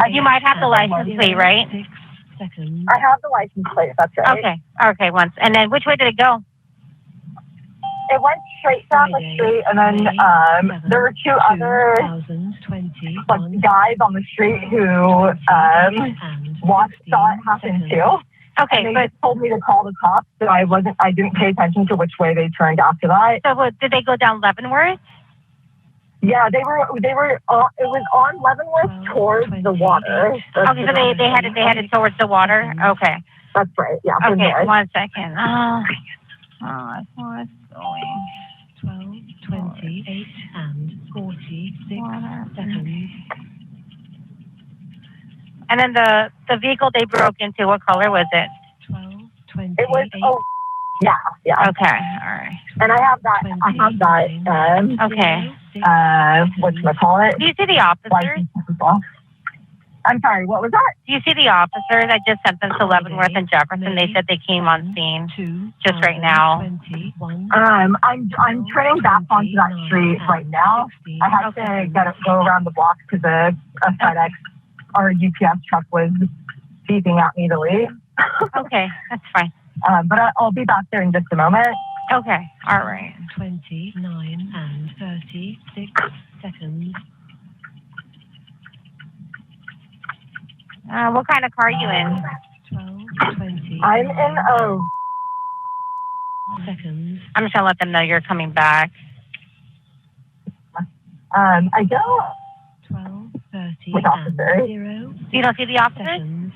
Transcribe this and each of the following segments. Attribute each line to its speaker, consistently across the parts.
Speaker 1: Uh, you might have the license plate, right?
Speaker 2: I have the license plate. That's right.
Speaker 1: Okay, okay, once. And then which way did it go?
Speaker 2: It went straight down the street, and then um, there were two other like guys on the street who um, watched saw it happen too.
Speaker 1: Okay,
Speaker 2: And they
Speaker 1: but
Speaker 2: just told me to call the cops, so I wasn't. I didn't pay attention to which way they turned after that.
Speaker 1: so what, did they go down Leavenworth?
Speaker 2: Yeah, they were. They were. Uh, it was on Leavenworth towards the water. Mm-hmm. That's,
Speaker 1: Okay, so they, they headed they headed towards the water. Okay,
Speaker 2: that's right. Yeah, from
Speaker 1: okay,
Speaker 2: there.
Speaker 1: one second. Oh, oh what's going?
Speaker 3: 12, 28, and 46 seconds.
Speaker 1: And then the the vehicle they broke into, what color was it?
Speaker 3: 12,
Speaker 2: It was.
Speaker 3: 28,
Speaker 2: Oh, yeah,
Speaker 1: Okay,
Speaker 2: yeah.
Speaker 1: all right.
Speaker 2: And I have that. I have that. Um,
Speaker 1: Okay.
Speaker 2: uh, what call it?
Speaker 1: Do you see the officers?
Speaker 2: License as well. I'm sorry. What was that?
Speaker 1: Do you see the officers? I just sent them to Leavenworth and Jefferson. They said they came on scene.
Speaker 3: just right now. 21,
Speaker 2: Um, I'm I'm turning back onto that street right now. I had
Speaker 1: Okay.
Speaker 2: to gotta go around the block because a, a FedEx or a UPS truck was beeping at me to leave.
Speaker 1: Okay, that's fine.
Speaker 2: Um, but I, I'll be back there in just a moment.
Speaker 1: Okay, all right.
Speaker 3: 29 and 36 seconds.
Speaker 1: Uh, what kind of car are you in?
Speaker 3: 12,
Speaker 2: I'm in a
Speaker 3: seconds.
Speaker 1: I'm just gonna let them know you're coming back.
Speaker 2: um, I don't
Speaker 3: 12, 30
Speaker 2: With
Speaker 3: and
Speaker 2: officers.
Speaker 3: 0
Speaker 1: You don't see the officers?
Speaker 3: seconds.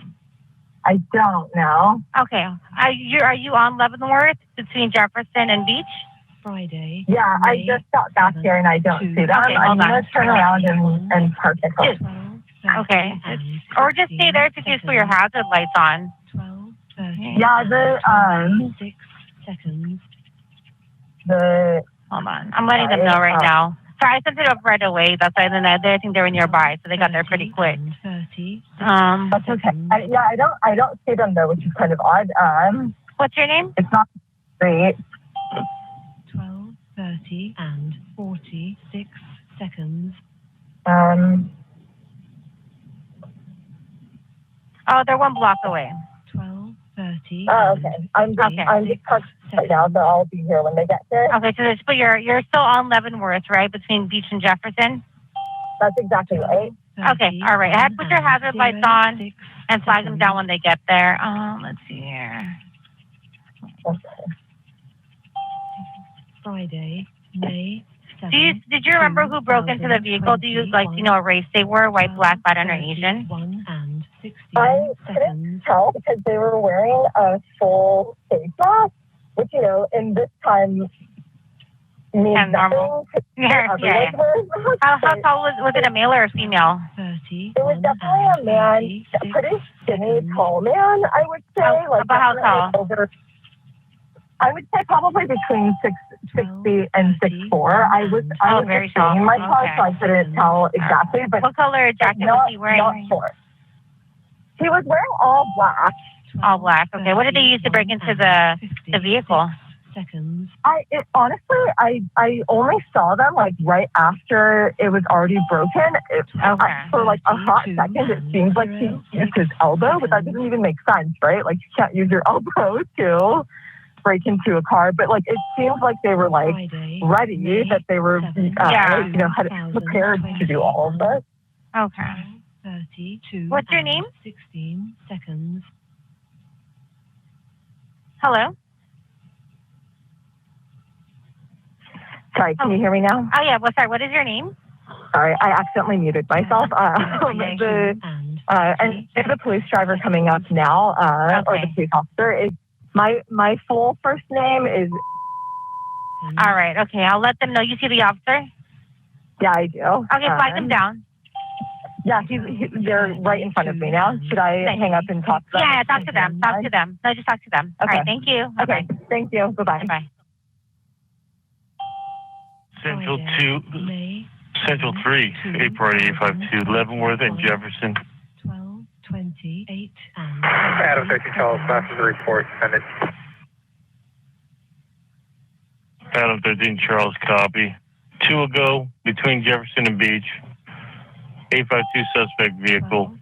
Speaker 2: I don't know.
Speaker 1: Okay. Are you are you on Leavenworth between Jefferson and Beach?
Speaker 3: Friday.
Speaker 2: Yeah, I just got back here and I don't see that.
Speaker 1: Okay, hold on.
Speaker 2: I'm gonna turn around and, and park it.
Speaker 3: 12,
Speaker 1: Okay. Or just stay there if you just put your hazard lights on.
Speaker 3: 12,
Speaker 2: Yeah, the um
Speaker 3: 6 seconds.
Speaker 2: the
Speaker 1: Hold on. I'm letting them know right now. Sorry, I sent it up right away. That's why then I they- I think they were nearby, so they got there pretty quick.
Speaker 3: 30.
Speaker 1: Um,
Speaker 2: that's okay. I, yeah, I don't I don't see them though, which is kind of odd. Um.
Speaker 1: what's your name?
Speaker 2: It's not great.
Speaker 3: 12, 30, and 46 seconds.
Speaker 2: Um,
Speaker 1: Oh, they're one block away.
Speaker 3: 12, 30.
Speaker 2: oh, okay. I'm just,
Speaker 1: Okay.
Speaker 2: I'm just parked right now, but I'll be here when they get here.
Speaker 1: Okay, so there's but you're you're still on Leavenworth, right? Between Beach and Jefferson,
Speaker 2: That's exactly right.
Speaker 1: Okay, all right. Have- put your hazard lights on. and flag them down when they get there. Um, let's see here.
Speaker 3: Friday, May 7th.
Speaker 1: Do you did you remember who broke into the vehicle? Do you like you know what race they were? White, black, Latin, or Asian?
Speaker 3: 1 uh, and 16
Speaker 2: I-
Speaker 3: seconds.
Speaker 2: Tell because they were wearing a full face mask, which you know, in this time means
Speaker 1: And normal.
Speaker 2: nothing.
Speaker 1: yeah, yeah.
Speaker 2: Everyone's wearing masks,
Speaker 1: How, how
Speaker 2: but
Speaker 1: tall was was it a male or a female?
Speaker 3: 30.
Speaker 2: It was definitely a man, a pretty skinny, tall man. I would say,
Speaker 1: How-
Speaker 2: like
Speaker 1: about how
Speaker 2: definitely Over, I would say probably between six six feet and six four. I was I
Speaker 1: Oh,
Speaker 2: was
Speaker 1: very
Speaker 2: just seeing my
Speaker 1: tall.
Speaker 2: car, so I
Speaker 1: Okay.
Speaker 2: couldn't tell exactly, but
Speaker 1: What color jacket was he wearing?
Speaker 2: short. He was wearing all black.
Speaker 1: All black. Okay. What did they use to break into the the vehicle?
Speaker 3: Seconds.
Speaker 2: I it, honestly, I I only saw them like right after it was already broken. It,
Speaker 1: Okay.
Speaker 2: I, for like a hot second, it seems like he used his elbow, but that doesn't even make sense, right? Like you can't use your elbow to break into a car. But like it seems like they were like
Speaker 3: Friday,
Speaker 2: ready that they were, uh,
Speaker 1: Yeah.
Speaker 2: you know, had prepared to do all of this.
Speaker 1: Okay.
Speaker 3: 32.
Speaker 1: What's your
Speaker 3: and
Speaker 1: name?
Speaker 3: 16 seconds.
Speaker 1: Hello.
Speaker 2: Sorry, can you hear me now?
Speaker 1: Oh yeah. Well, sorry. What is your name?
Speaker 2: Sorry, I accidentally muted myself. Um, the
Speaker 3: and
Speaker 2: Uh, and if the police driver coming up now, uh, or the
Speaker 1: Okay.
Speaker 2: police officer is my my full first name is
Speaker 1: All right. Okay. I'll let them know. You see the officer?
Speaker 2: yeah I do.
Speaker 1: Okay. Flag them
Speaker 2: Um,
Speaker 1: down.
Speaker 2: Yeah, he's, he, they're right in front of me now. Should I
Speaker 1: Thank-
Speaker 2: hang up and talk to them?
Speaker 1: Yeah. Talk to them. Talk to them. No, just talk to them. All right.
Speaker 2: Okay.
Speaker 1: Thank you.
Speaker 2: Okay, thank you. Bye bye.
Speaker 1: Bye. Bye.
Speaker 4: Central
Speaker 3: Friday,
Speaker 4: 2,
Speaker 3: May
Speaker 4: Central 3, April 852, Leavenworth and Jefferson.
Speaker 3: 12, 28, and.
Speaker 5: Adam 50 Charles, master the report, send it.
Speaker 4: Adam 13, Charles, copy. Two ago, between Jefferson and Beach. 852 suspect vehicle